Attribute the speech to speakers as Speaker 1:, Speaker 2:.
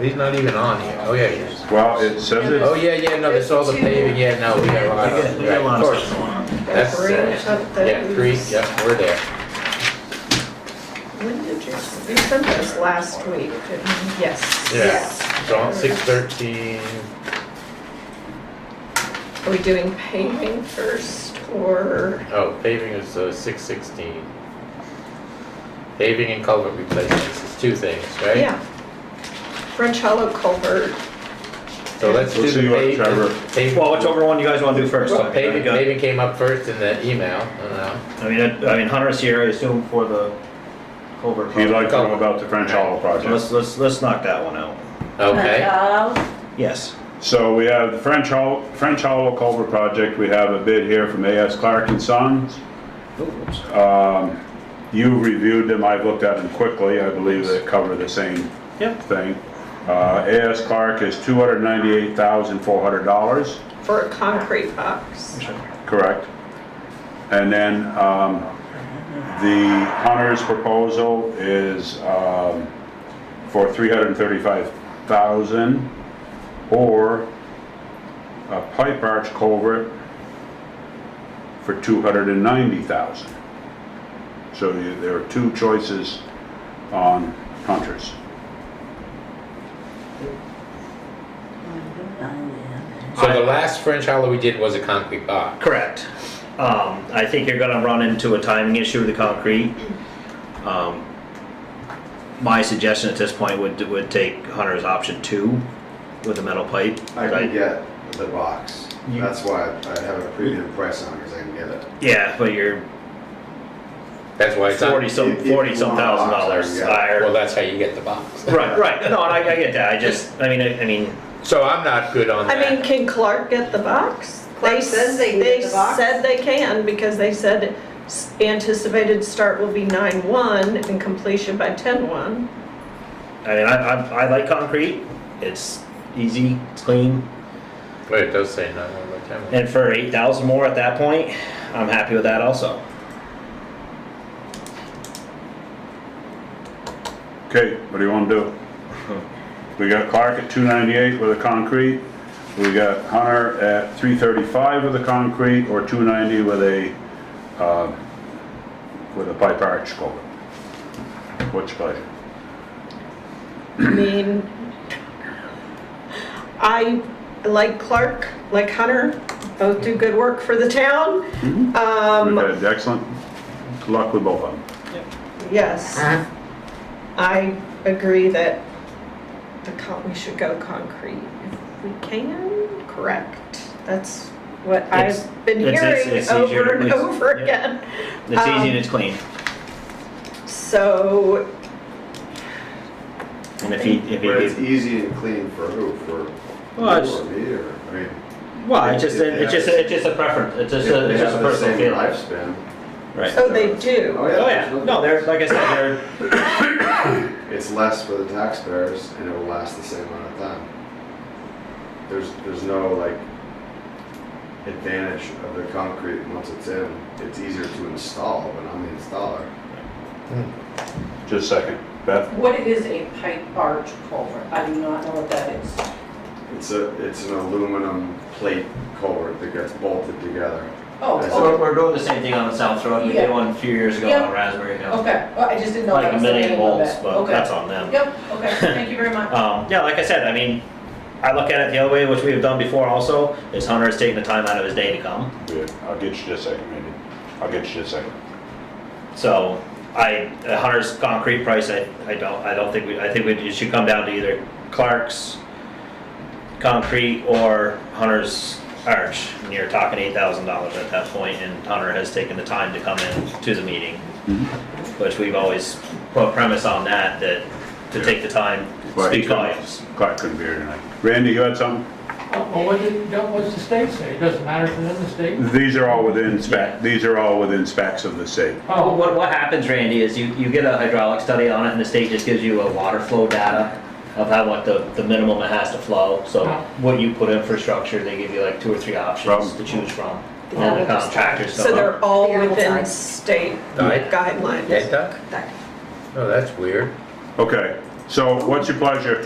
Speaker 1: He's not even on here. Oh, yeah, he is.
Speaker 2: Well, it says
Speaker 1: Oh,
Speaker 2: it,
Speaker 1: yeah, yeah, no, there's all the paving, yeah, no, we got a lot of,
Speaker 3: We got a
Speaker 1: right,
Speaker 3: lot
Speaker 1: of
Speaker 3: of stuff
Speaker 1: course.
Speaker 3: going on.
Speaker 1: That's,
Speaker 4: Three or
Speaker 1: uh,
Speaker 4: something.
Speaker 1: yeah, three, yeah, we're there.
Speaker 4: When did you, you sent this last week, didn't you? Yes.
Speaker 1: Yeah, so on six thirteen,
Speaker 4: Are we doing paving first or,
Speaker 1: oh, paving is, uh, six sixteen. Paving and culvert replacements is two things, right?
Speaker 4: yeah. French Hollow Culvert,
Speaker 1: So let's do
Speaker 2: Let's
Speaker 1: the
Speaker 2: see what
Speaker 1: pave-
Speaker 2: Trevor-
Speaker 1: pave-
Speaker 3: Well, whichever one you guys want to do first.
Speaker 1: Well, Paving,
Speaker 3: I
Speaker 1: paving came up first in the email, I don't know.
Speaker 3: mean, I I mean, Hunter Sierra, I assume for the culvert.
Speaker 2: he'd
Speaker 3: project.
Speaker 2: like to know about the French Hollow
Speaker 3: So
Speaker 2: project.
Speaker 3: Let's, let's, let's knock that one out.
Speaker 4: Uh,
Speaker 1: Okay,
Speaker 3: Yes.
Speaker 2: So we have the French Hollow, French Hollow Culver project, we have a bid here from AS Clark and Sons. Um, You reviewed them, I've looked at them quickly, I believe they cover the same
Speaker 3: Yep.
Speaker 2: thing. Uh, AS Clark is $298,400.
Speaker 4: for a concrete box.
Speaker 2: Correct. And then um, the Hunter's proposal is um, for $335,000 or a pipe arch culvert for $290,000. So you- there are two choices on Hunter's.
Speaker 1: so the last French Hollow we did was a concrete box.
Speaker 3: Correct. Um, I think you're gonna run into a timing issue with the concrete. Um, My suggestion at this point would, would take Hunter's option two with the metal pipe.
Speaker 5: I can get the box.
Speaker 3: You-
Speaker 5: That's why I have a premium price on it, because I can get it.
Speaker 3: Yeah, but you're
Speaker 1: That's why it's on.
Speaker 3: forty some,
Speaker 5: If- if
Speaker 3: forty some
Speaker 5: you want a
Speaker 3: thousand
Speaker 5: box,
Speaker 3: dollars
Speaker 5: yeah.
Speaker 3: higher.
Speaker 1: Well, that's how you get the box.
Speaker 3: Right, right. No, and I, I get that. I just, I mean, I, I mean,
Speaker 1: So I'm not good on
Speaker 4: I
Speaker 1: that.
Speaker 4: mean, can Clark get the box?
Speaker 6: Clark
Speaker 4: s-
Speaker 6: says they can get the box.
Speaker 4: They said they can because they said s- anticipated start will be nine one and completion by ten one.
Speaker 3: I mean, I, I, I like concrete. It's easy, it's clean.
Speaker 1: Wait, it does say nine one by ten.
Speaker 3: And for eight thousand more at that point, I'm happy with that also.
Speaker 2: Okay, what do you want to do? We got Clark at 298 with a concrete, we got Hunter at 335 with a concrete, or 290 with a, um, with a pipe arch culvert. What's your pleasure?
Speaker 4: I mean, I like Clark, like Hunter, both do good work for the town.
Speaker 2: We've
Speaker 4: Um,
Speaker 2: had excellent luck with both of them.
Speaker 4: yes.
Speaker 3: Uh-huh.
Speaker 4: I agree that the con, we should go concrete if we can, correct? That's what
Speaker 3: It's-
Speaker 4: I've been
Speaker 3: it's- it's-
Speaker 4: hearing
Speaker 3: it's easier to
Speaker 4: over and
Speaker 3: please.
Speaker 4: over
Speaker 3: Yeah.
Speaker 4: again.
Speaker 3: It's easy and
Speaker 4: Um,
Speaker 3: it's clean.
Speaker 4: So,
Speaker 3: And if he, if he,
Speaker 5: But it's
Speaker 3: gave-
Speaker 5: easy and clean for who? For you
Speaker 3: Well, it's-
Speaker 5: or me or, I mean.
Speaker 3: well, it's just,
Speaker 5: It- it
Speaker 3: it's just,
Speaker 5: has-
Speaker 3: it's just a preference. It's just
Speaker 5: if
Speaker 3: a,
Speaker 5: they
Speaker 3: it's just a
Speaker 5: have the
Speaker 3: personal
Speaker 5: same
Speaker 3: feeling.
Speaker 5: Lifespan.
Speaker 3: Right.
Speaker 4: oh, they do.
Speaker 3: Oh yeah, no, they're, like I said, they're,
Speaker 5: It's less for the taxpayers and it will last the same amount of time. There's, there's no like advantage of the concrete once it's in. It's easier to install, but I'm the installer.
Speaker 2: Just a second. Beth,
Speaker 6: What is a pipe arch culvert? I do not know what that is.
Speaker 5: It's a, it's an aluminum plate culvert that gets bolted together. That's
Speaker 3: we're,
Speaker 6: Oh,
Speaker 3: we're doing the same thing on the South Road. We did
Speaker 6: Yeah.
Speaker 3: one a few years ago
Speaker 6: Yeah.
Speaker 3: on Raspberry Hill.
Speaker 6: oh, okay, Well, I just didn't know.
Speaker 3: Like
Speaker 6: that
Speaker 3: a
Speaker 6: was the
Speaker 3: million
Speaker 6: name of
Speaker 3: volts,
Speaker 6: it.
Speaker 3: but
Speaker 6: Okay.
Speaker 3: that's on them.
Speaker 6: Yep, okay, thank you very much.
Speaker 3: Um, yeah, like I said, I mean, I look at it the other way, which we have done before also, is Hunter is taking the time out of his day to come.
Speaker 2: good. I'll get you just a second, maybe. I'll get you just a second.
Speaker 3: So I, uh, Hunter's concrete price, I, I don't, I don't think, we I think we it should come down to either Clark's concrete or Hunter's arch. And you're talking eight thousand dollars at that point, and Hunter has taken the time to come in to the meeting. Which we've always put premise on that, that to take the time
Speaker 2: Right.
Speaker 3: speaks volumes.
Speaker 2: Clark couldn't be here tonight. Randy, you had something?
Speaker 7: Well, what did, what's the state say? It doesn't matter to them, the state?
Speaker 2: These are all within spec, these are all within specs of the state.
Speaker 3: Well,
Speaker 7: Oh,
Speaker 3: What, what happens, Randy, is you, you get a hydraulic study on it, and the state just gives you a water flow data of how, what the, the minimum it has to flow, so what you put in for structure, they give you like two or three options
Speaker 2: Problem.
Speaker 3: to choose from. And then the contractors
Speaker 4: So
Speaker 3: go,
Speaker 4: they're all
Speaker 6: Yeah, I'm
Speaker 4: within
Speaker 6: sorry.
Speaker 4: state
Speaker 1: Right.
Speaker 4: guidelines.
Speaker 1: Hey, Doug? Oh, that's weird.
Speaker 2: Okay, so what's your pleasure?